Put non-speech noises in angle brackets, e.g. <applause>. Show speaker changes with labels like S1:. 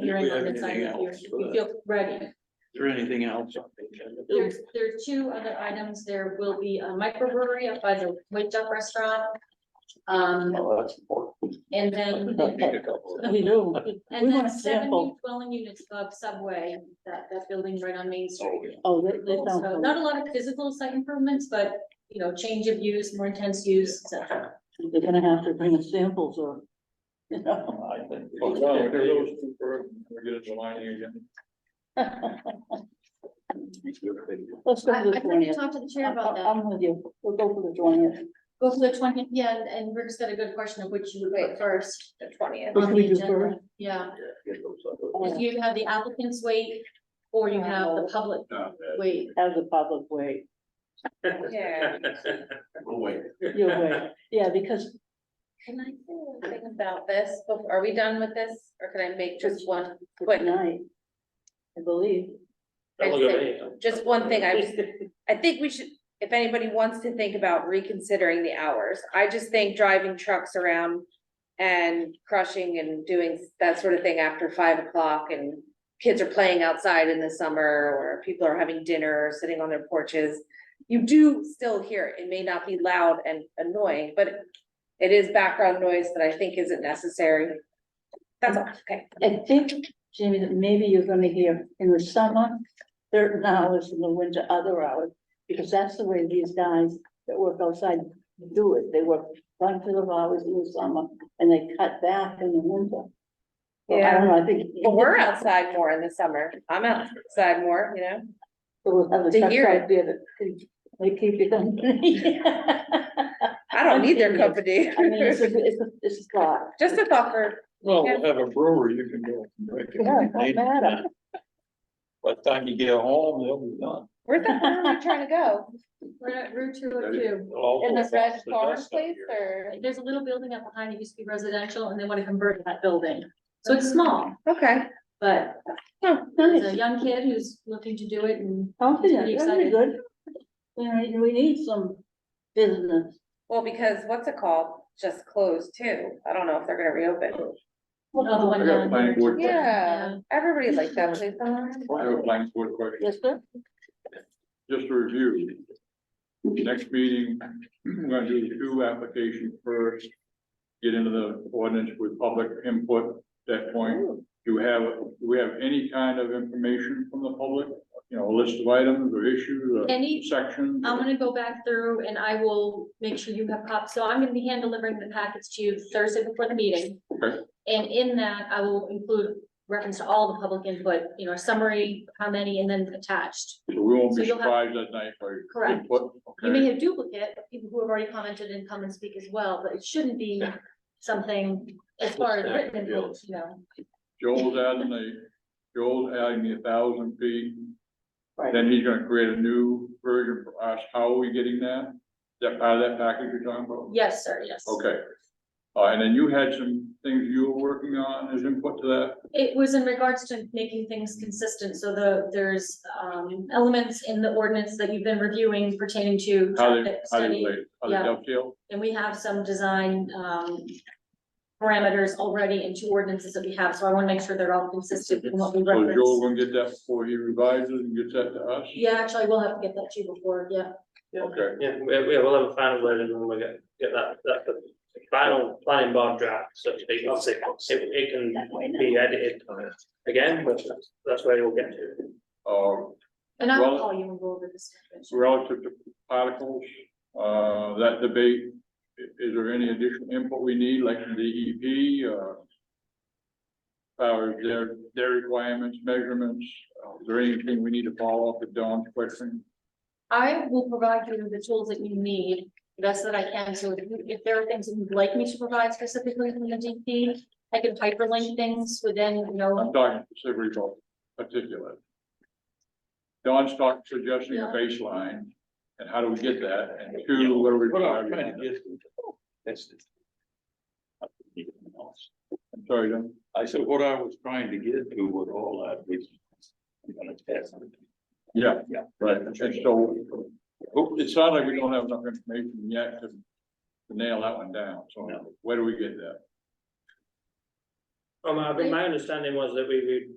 S1: hearing
S2: we
S1: on
S2: have
S1: this item,
S2: anything
S1: if you're-
S2: else
S1: if
S2: for
S1: you feel ready.
S2: Is there anything else uh, on the agenda?
S1: There's, there are two other items. There will be a microbrewery up by the Wake Up Restaurant. Um,
S2: Well, that's important.
S1: and
S2: <laughs>
S1: then,
S2: I'll take a couple of-
S3: We
S1: and
S3: do. want
S1: then
S3: a
S1: seven
S3: sample.
S1: new dwelling units above Subway, that, that building right on Main Street.
S2: Oh,
S3: Oh,
S2: yeah.
S3: that, that sounds
S1: So
S3: good.
S1: not a lot of physical site improvements, but, you know, change of use, more intense use, et cetera.
S3: They're gonna have to bring us samples or, you know.
S2: I think-
S4: Oh, no, they're those two first, we're gonna align you again.
S3: Let's go
S5: I,
S3: to the
S5: I tried to
S3: twentieth.
S5: talk to the chair about that.
S3: I'm with you. We'll go for the twentieth.
S1: Go for the twentieth, yeah, and- and Rick's got a good question of which you would wait first.
S5: The twentieth.
S3: Which
S1: on
S3: we
S1: the
S3: do
S1: agenda.
S3: first?
S1: Yeah,
S2: Yeah, get those up.
S1: because you have the applicants wait, or you have the public
S2: Not bad.
S1: wait.
S3: Have the public wait.
S5: Yeah.
S2: <laughs> We'll wait.
S3: You'll
S5: <laughs>
S3: wait. Yeah, because
S5: Can I say one thing about this? bef- Are we done with this? Or can I make just one,
S3: for tonight, I believe.
S4: Don't look at me.
S5: just one thing?
S4: <laughs>
S5: I was, I think we should, if anybody wants to think about reconsidering the hours, I just think driving trucks around and crushing and doing that sort of thing after five o'clock and kids are playing outside in the summer or people are having dinner, sitting on their porches. You do still hear it. It may not be loud and annoying, but it is background noise that I think isn't necessary. That's all, okay.
S3: I think, Jamie, that maybe you're gonna hear in the summer, certain hours, in the winter, other hours. Because that's the way these guys that work outside do it. They work one to of hours in the summer and they cut back in the winter. So I don't know, I think.
S5: Well, we're outside more in the summer. I'm outside more, you know?
S3: We'll have the
S5: to
S3: trucks
S5: hear it.
S3: out there that can- they keep you company. <laughs> I
S5: I don't need their company.
S3: mean, it's a, it's a, it's a thought.
S5: <laughs> Just a thought for,
S2: Well, we'll have a brewer, you can go. and drink it.
S3: Yeah, it don't matter.
S2: By the time you get home, they'll be done.
S5: where's that farm you're trying to go?
S1: We're at Route two oh two.
S5: In this red farm place or?
S2: or?
S1: There's a little building up behind, it used to be residential, and they want to convert that building. So it's small,
S5: Okay,
S1: but
S5: Oh,
S1: there's a
S3: Nice,
S1: young kid who's looking to do it and
S3: confident,
S1: Pretty
S3: that'd be
S1: excited.
S3: good. You know, we need some business.
S5: well, because what's it called? Just closed too. I don't know if they're gonna reopen.
S3: Um,
S1: another
S4: I
S1: one
S4: got a
S1: down
S4: planning
S1: here.
S4: board, que-
S5: Yeah, everybody likes that place.
S4: I have a planning board question,
S3: Yes, sir?
S4: just to review. Next meeting, I'm gonna do two applications first. Get into the ordinance with public input at that point.
S1: Oh.
S4: Do you have, do we have any kind of information from the public? You know, a list of items or issues
S1: Any-
S4: or sections?
S1: I'm gonna go back through and I will make sure you have copies. So I'm gonna be hand delivering the packets to you Thursday before the meeting.
S4: Okay.
S1: And in that, I will include reference to all the public input, you know, summary, how many, and then attached.
S4: So we won't be
S1: So you'll have-
S4: surprised that night by
S1: Correct.
S4: input,
S1: You
S4: okay?
S1: may have duplicate, of people who have already commented and come and speak as well, but it shouldn't be something as far as written input, you know.
S4: Joel's adding the, Joel's adding the thousand feet,
S3: Right.
S4: then he's gonna create a new version for us, how are we getting that? Is That part of that package you're talking about?
S1: Yes, sir, yes.
S4: Okay. Uh, and then you had some things you were working on as input to that,
S1: It was in regards to making things consistent, so the, there's, um, elements in the ordinance that you've been reviewing pertaining to
S4: how they,
S1: traffic
S4: how they
S1: study.
S4: relate, how they
S1: yeah.
S4: dovetail?
S1: And we have some design, um, parameters already in two ordinances that we have, so I wanna make sure they're all consistent in what we
S4: So Joel
S1: reference.
S4: gonna get that before he revises and gets that to us?
S1: Yeah, actually, we'll have to get that to you before, yeah.
S4: Okay,
S6: Yeah, we, we will have a final version when we get, get that, that, the final planning board draft, so it, it, it can
S3: That way now.
S6: be edited again, but that's, that's where you'll get to.
S4: uh,
S1: And I will
S4: Well-
S1: call you and go over this. information.
S4: relative to particles, uh, that debate, i- is there any additional input we need, like from DEP, uh? Powers, their, their requirements, measurements, uh, is there anything we need to follow up with Don's question?
S1: I will provide you with the tools that you need, the best that I can, so if you- if there are things that you'd like me to provide specifically from the DP, I can hyperlink things within, you know,
S4: I'm talking specifically about particulate. Don's talking, suggesting
S1: Yeah.
S4: a baseline, and how do we get that, and two, what are we?
S2: What I'm trying to get. that's it.
S4: I'm Sorry, Don,
S2: I said, what I was trying to get to with all that was. I'm gonna test it.
S4: yeah,
S2: Yeah.
S4: right, and so, oh, it sounds like we don't have enough information yet to to nail that one down, so
S2: No.
S4: where do we get that?
S6: Um, I think my understanding was that we would